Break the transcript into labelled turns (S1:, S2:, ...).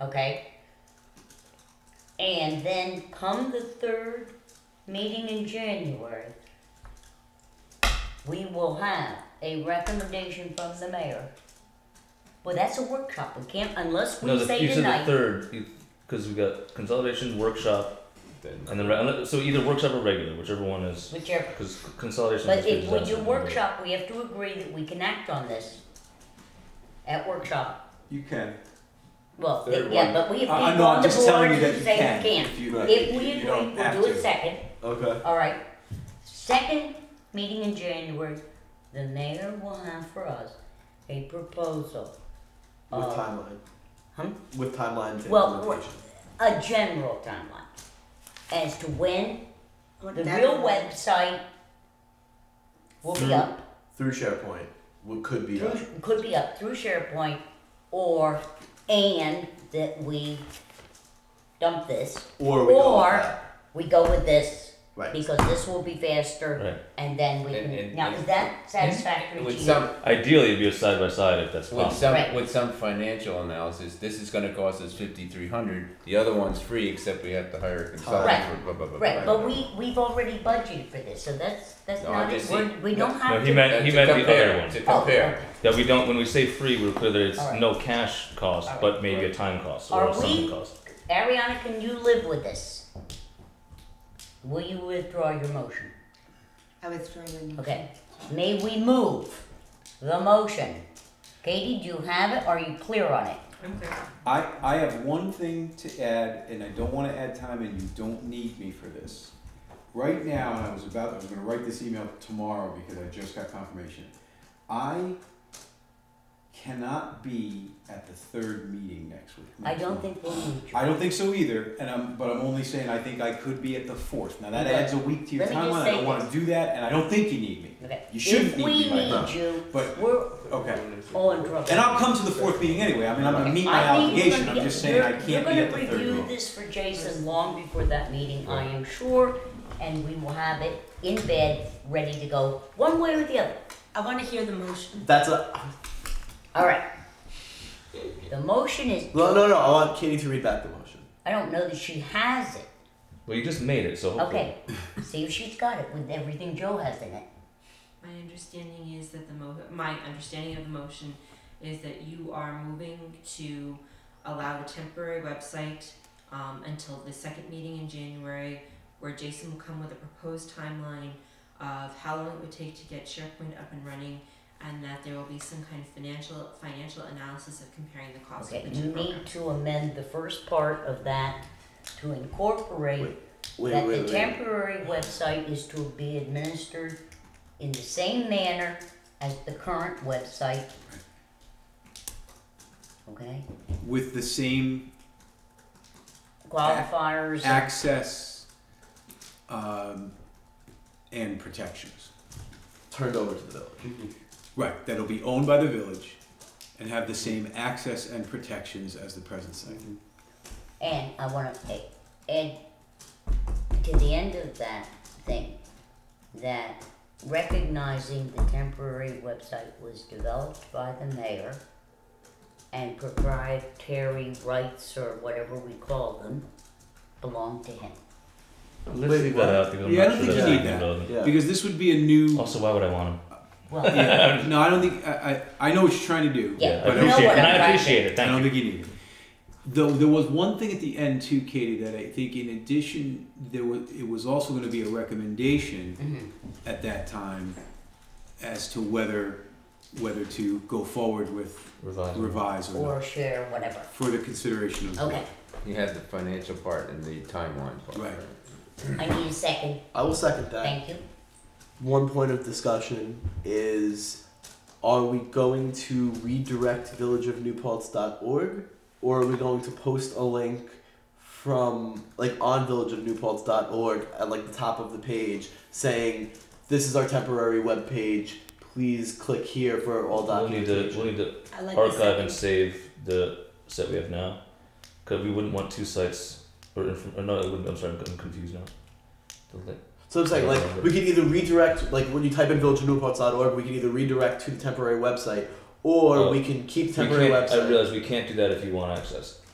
S1: okay? And then come the third meeting in January, we will have a recommendation from the mayor. Well, that's a workshop, we can't, unless
S2: No,
S1: we
S2: the,
S1: say
S2: you said the
S1: tonight,
S2: third, because we got consolidation, workshop,
S3: Then
S2: and then, uh, re- unle- so either workshop or regular, whichever one is,
S1: whichever,
S2: because consolidation.
S1: but
S2: has been
S1: if we do
S2: disaster.
S1: workshop, we have to agree that we can act on this at workshop.
S3: you can.
S1: Well,
S3: Third
S1: yeah,
S3: one.
S1: but we have people
S3: I- I know,
S1: on
S3: I'm
S1: the
S3: just telling
S1: board
S3: you
S1: who
S3: that you
S1: say
S3: can.
S1: we can't.
S3: If you don't,
S1: If we
S3: you
S1: agree,
S3: don't have
S1: we'll do
S3: to.
S1: it second.
S3: Okay.
S1: All right. Second meeting in January, the mayor will have for us a proposal.
S4: With
S1: Uh,
S4: timeline.
S1: huh?
S4: With timelines and
S1: Well,
S4: implementation.
S1: A general timeline as to when
S5: What
S1: the
S5: that
S1: real
S5: was.
S1: website will be
S4: Through-
S1: up.
S4: Through SharePoint, what could be up.
S1: Through, could be up through SharePoint or and that we dump this.
S4: Or we go with
S1: or-
S4: that.
S1: We go with this
S4: Right.
S1: because this will be faster
S2: Right.
S1: and then we
S6: And-
S1: can
S6: and-
S1: now
S6: and-
S1: is that satisfactory to
S6: With
S1: you?
S6: some
S2: Ideally, it'd be a side by side if that's
S6: with
S2: possible.
S6: some
S1: E Right.
S6: with some financial analysis, this is going to cost us fifty three hundred. The other one's free, except we have to hire a consultant.
S1: Right.
S6: For blah, blah, blah,
S1: Right,
S6: blah,
S1: but
S6: blah.
S1: we, we've already budgeted for this, so that's, that's
S6: No,
S1: not,
S6: I just-
S1: we're- we don't
S2: No,
S1: have
S2: he
S1: to.
S2: meant
S6: Uh,
S2: he
S6: to
S2: meant the
S6: compare,
S2: other one.
S6: To
S1: Oh,
S6: compare.
S2: That we don't. When we say free, we're clear that it's
S1: Alright.
S2: no cash cost,
S1: Alright.
S2: but maybe a time cost or
S1: Are
S2: a something
S1: we-
S2: cost.
S1: okay. Ariana, can you live with this? Will you withdraw your motion?
S5: I was struggling.
S1: Okay, may we move the motion? Katie, do you have it, are you clear on it?
S3: I, I have one thing to add, and I don't want to add time, and you don't need me for this. Right now, and I was about, I was going to write this email tomorrow because I just got confirmation. I cannot be at the third meeting next week.
S1: I don't think we'll need you.
S3: I don't think so either, and I'm, but I'm only saying I think I could be at the fourth. Now that adds a week to your
S1: Let me just
S3: timeline. I
S1: say
S3: don't want to do that, and I don't think you need me.
S1: Okay.
S3: You should
S1: If
S3: need
S1: we
S3: me by now,
S1: need you,
S3: but-
S1: we're
S3: Okay.
S1: all in trouble.
S3: And I'll come to the fourth meeting anyway. I mean, I'm gonna meet my
S1: I think you're
S3: obligation.
S1: gonna-
S3: I'm just saying I
S1: you're-
S3: can't be at the
S1: You're
S3: third
S1: gonna review
S3: meeting.
S1: this for Jason long before that meeting, I am sure, and we will have it in bed, ready to go, one way or the other.
S5: I want to hear the motion.
S4: That's a.
S1: All right. The motion is,
S4: No, no, no. I want Katie to read back the motion.
S1: I don't know that she has it.
S2: Well, you just made it, so hopefully.
S1: Okay, see if she's got it with everything Joe has in it.
S7: My understanding is that the mo- my understanding of the motion is that you are moving to allow a temporary website um, until the second meeting in January, where Jason will come with a proposed timeline of how long it would take to get SharePoint up and running, and that there will be some kind of financial financial analysis of comparing the cost
S1: Okay,
S7: of each
S1: you
S7: program.
S1: need to amend the first part of that to incorporate
S4: Wait,
S1: that
S4: wait,
S1: the
S4: wait.
S1: temporary website is to be administered in the same manner as the current website. Okay,
S3: With the same
S1: qualifiers,
S3: access um, and protections.
S4: Turned over to the village.
S3: Right, that'll be owned by the village and have the same access and protections as the present site.
S1: and I wanna a- add to the end of that thing, that recognizing the temporary website was developed by the mayor and proprietary rights or whatever we call them belong to him.
S2: Let's
S4: Wait,
S2: leave
S4: what?
S2: that out because I'm
S3: Yeah, I
S2: not
S3: don't
S2: sure
S3: think you
S2: that's
S3: need
S2: even
S3: that.
S2: relevant.
S4: Yeah.
S3: Because this would be a new.
S2: Also, why would I want him?
S1: Well,
S3: Yeah, no, I don't think. I, I, I know what you're trying to do.
S1: Yeah,
S2: I
S3: but
S1: you know
S2: appreciate
S1: what
S2: it. And
S1: I'm
S2: I
S1: trying to
S2: appreciate it.
S3: I
S2: Thank
S3: don't
S2: you.
S3: think you need it. Though there was one thing at the end too, Katie, that I think in addition there was it was also going to be a recommendation
S1: mm-hmm.
S3: at that time as to whether whether to go forward with
S1: Oh,
S2: Revise.
S3: revise or,
S1: or
S3: not
S1: share, whatever.
S3: for the consideration of the
S1: Okay,
S6: You have the financial part and the timeline part.
S3: Right.
S1: I need a second,
S4: I will second that.
S1: thank you.
S4: One point of discussion is are we going to redirect villageofnewpaltz.org or are we going to post a link from like on villageofnewpaltz.org at like the top of the page saying this is our temporary web page please click here for all
S2: We'll need to
S4: documentation
S2: we'll need to
S5: I like the
S2: archive
S5: second.
S2: and save the set we have now, because we wouldn't want two sites or, inf- or no, it wouldn't, I'm sorry, I'm confused now. The li-
S4: so i'm saying like we can either redirect like when you type in villageofnewpaltz.org we can either redirect to the temporary website or
S2: Oh.
S4: we can keep
S2: We
S4: temporary
S2: can't-
S4: website
S2: I realize we can't do that if you want access.